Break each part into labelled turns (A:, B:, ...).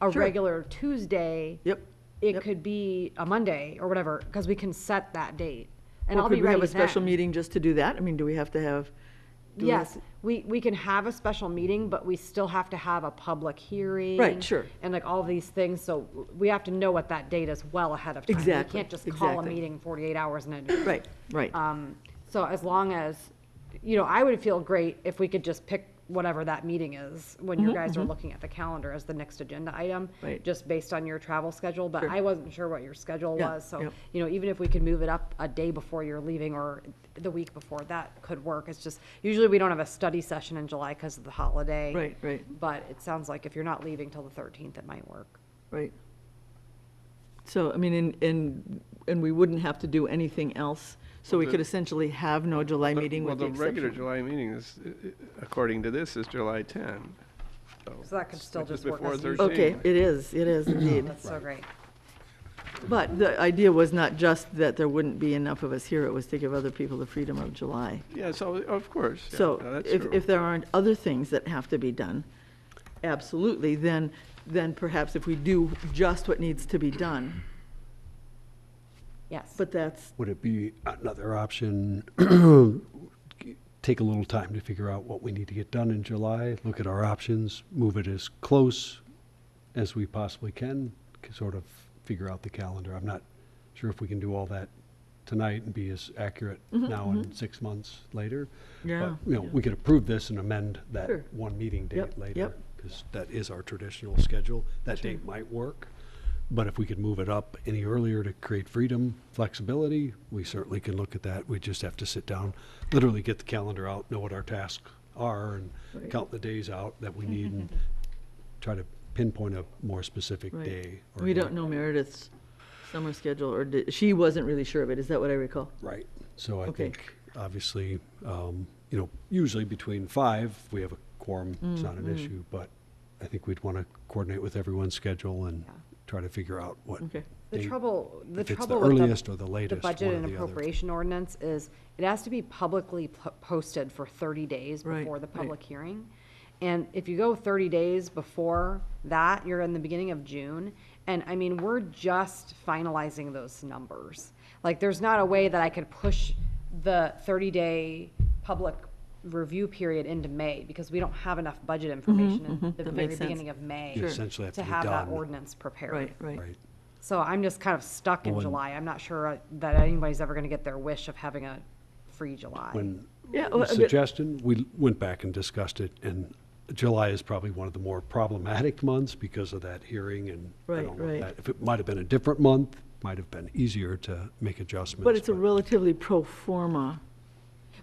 A: a
B: Sure.
A: regular Tuesday.
B: Yep.
A: It
B: Yep.
A: could be a Monday or whatever, because we can set that date. And
B: Or
A: I'll be ready
B: Could we have a special
A: then.
B: meeting just to do that? I mean, do we have to have? do we have
A: Yes,
B: to-
A: we, we can have a special meeting, but we still have to have a public hearing.
B: sure.
A: And like all these things, so we have to know what that date is well ahead of time.
B: Exactly,
A: We can't just call a
B: exactly.
A: meeting forty-eight hours in advance.
B: Right, right.
A: Um, so as long as, you know, I would feel great if we could just pick whatever that meeting is when you guys are looking at the calendar as the next agenda item.
B: Mm-hmm, Right.
A: Just based on your travel schedule, but I wasn't sure what your schedule
B: Yeah,
A: was, so,
B: yeah.
A: you know, even if we could move it up a day before you're leaving or the week before, that could work. It's just, usually we don't have a study session in July because of the holiday.
B: Right, right.
A: But it sounds like if you're not leaving till the thirteenth, it might work.
B: Right. So, I mean, and, and, and we wouldn't have to do anything else, so we
C: Well,
B: could
C: the-
B: essentially have no July
C: But-
B: meeting with the
C: Well, the regular
B: exception.
C: July meeting is, i- i- according to this, is July 10.
A: So that could still
C: it's
A: just work
C: before
A: as usual.
C: Thursday.
B: Okay, it is, it is indeed.
A: That's so great.
B: But the idea was not just that there wouldn't be enough of us here, it was to give other people the freedom of July.
C: Yeah, so, of course. yeah, no,
B: So
C: that's
B: if,
C: true.
B: if there aren't other things that have to be done, absolutely, then, then perhaps if we do just what needs to be done,
A: Yes.
B: but that's,
D: Would it be another option, take a little time to figure out what we need to get done in July, look at our options, move it as close as we possibly can, c- sort of figure out the calendar? I'm not sure if we can do all that tonight and be as accurate now and six months later. But,
B: Mm-hmm, Yeah,
D: You know, we could approve this and amend that
B: Sure.
D: one meeting
B: Yep,
D: date later,
B: yep.
D: because that is our traditional schedule. That date might work, but if we could move it up any earlier to create freedom, flexibility, we certainly can look at that. We just have to sit down, literally get the calendar out, know what our tasks are, and count the days out that we need, and try to pinpoint a more specific
B: Right.
D: day. or
B: we
D: night.
B: don't know Meredith's summer schedule, or did, she wasn't really sure of it, is that what I recall?
D: Right, so I
B: Okay.
D: think, obviously, um, you know, usually between five, we have a quorum, it's not
B: Mm-hmm.
D: an issue, but I think we'd want to coordinate with everyone's schedule and
A: Yeah.
D: try to figure out what,
B: Okay.
A: The
D: date-
A: trouble, the
D: if it's the
A: trouble with
D: earliest or the latest,
A: The budget
D: one or
A: and
D: the other.
A: appropriation ordinance is, it has to be publicly po- posted for thirty days
B: Right,
A: before the
B: right.
A: public hearing. And if you go thirty days before that, you're in the beginning of June, and I mean, we're just finalizing those numbers. Like, there's not a way that I could push the thirty-day public review period into May, because we don't have enough budget information in the
B: Mm-hmm, that
A: very
B: makes sense.
A: beginning of May.
D: You essentially have to be
A: have that
D: done.
A: ordinance prepared.
B: Right, right.
D: right?
A: So I'm just kind of stuck in
D: When-
A: July. I'm not sure uh, that anybody's ever going to get their wish of having a free July.
D: When
B: Yeah,
D: the
B: well, but-
D: suggestion, we went back and discussed it, and July is probably one of the more problematic months because of that hearing and. I
B: Right,
D: don't know if
B: right.
D: that- If it might have been a different month, might have been easier to make adjustments.
B: But it's a relatively pro forma,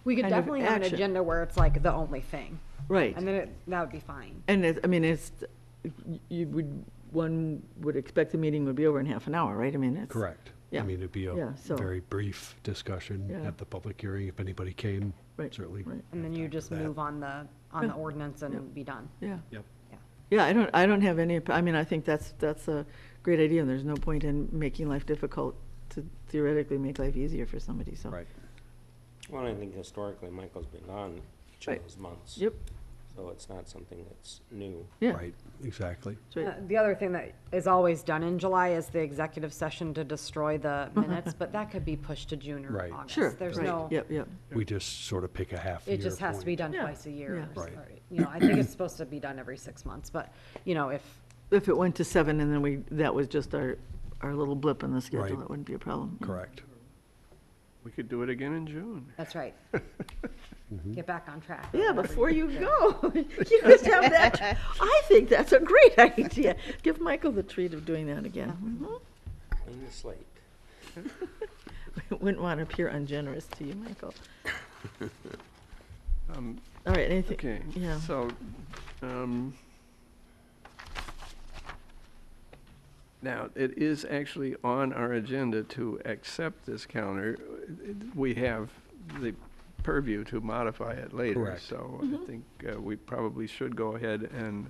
A: we could
B: kind of
A: definitely have an
B: action.
A: agenda where it's like the only thing,
B: right.
A: and then it, that would be fine.
B: And it, I mean, it's, you would, one would expect the meeting would be over in half an hour, right? I mean, it's.
D: Correct.
B: Yeah,
D: I mean, it'd be
B: yeah,
D: a
B: so-
D: very brief discussion
B: Yeah.
D: at the public hearing, if anybody came,
B: Right,
D: certainly.
B: right.
A: And then you just
D: that.
A: move on the on the ordinance and be done.
B: Yeah.
D: Yep.
A: Yeah.
B: Yeah, I don't, I don't have any, op- I mean, I think that's, that's a great idea, and there's no point in making life difficult to theoretically make life easier for somebody, so.
D: Right.
E: Well, I think historically, Michael's been on each
B: Right.
E: of those months.
B: Yep,
E: So it's not something that's new.
B: yeah.
D: Right, exactly.
B: that's
A: Uh,
B: right.
A: the other thing that is always done in July is the executive session to destroy the minutes, but that could be pushed to June or
D: Right.
A: August.
B: Uh-huh. Sure.
A: There's
B: right,
A: no.
B: Yep, yep.
D: We just sort of pick a half year
A: It just has to be
D: point.
A: done
B: Yeah,
A: twice a year.
B: yeah.
A: or s-
D: Right.
A: or, You know, I think it's supposed to be done every six months, but you know, if
B: If it went to seven and then we, that was just our, our little blip in the schedule,
D: Right.
B: that wouldn't be a problem. yeah.
D: Correct.
C: We could do it again in June.
A: That's right. Get back on track.
B: Yeah, before you go, you just have that, I think that's a great idea. Give Michael the treat of doing that again. Mhm.
E: Clean the slate.
B: Wouldn't want to appear ungenerous to you, Michael.
C: Um,
B: All right, anything?
C: Okay,
B: Yeah.
C: so, um, now, it is actually on our agenda to accept this calendar. We have the purview to modify it later.
D: Correct.
C: So I think uh, we probably should go ahead and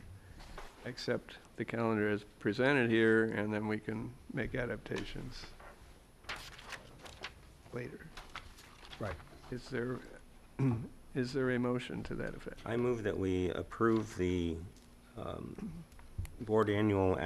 C: accept the calendar as presented here, and then we can make adaptations later.
D: Right.
C: Is there, is there a motion to that effect?
E: I move that we approve the um, board annual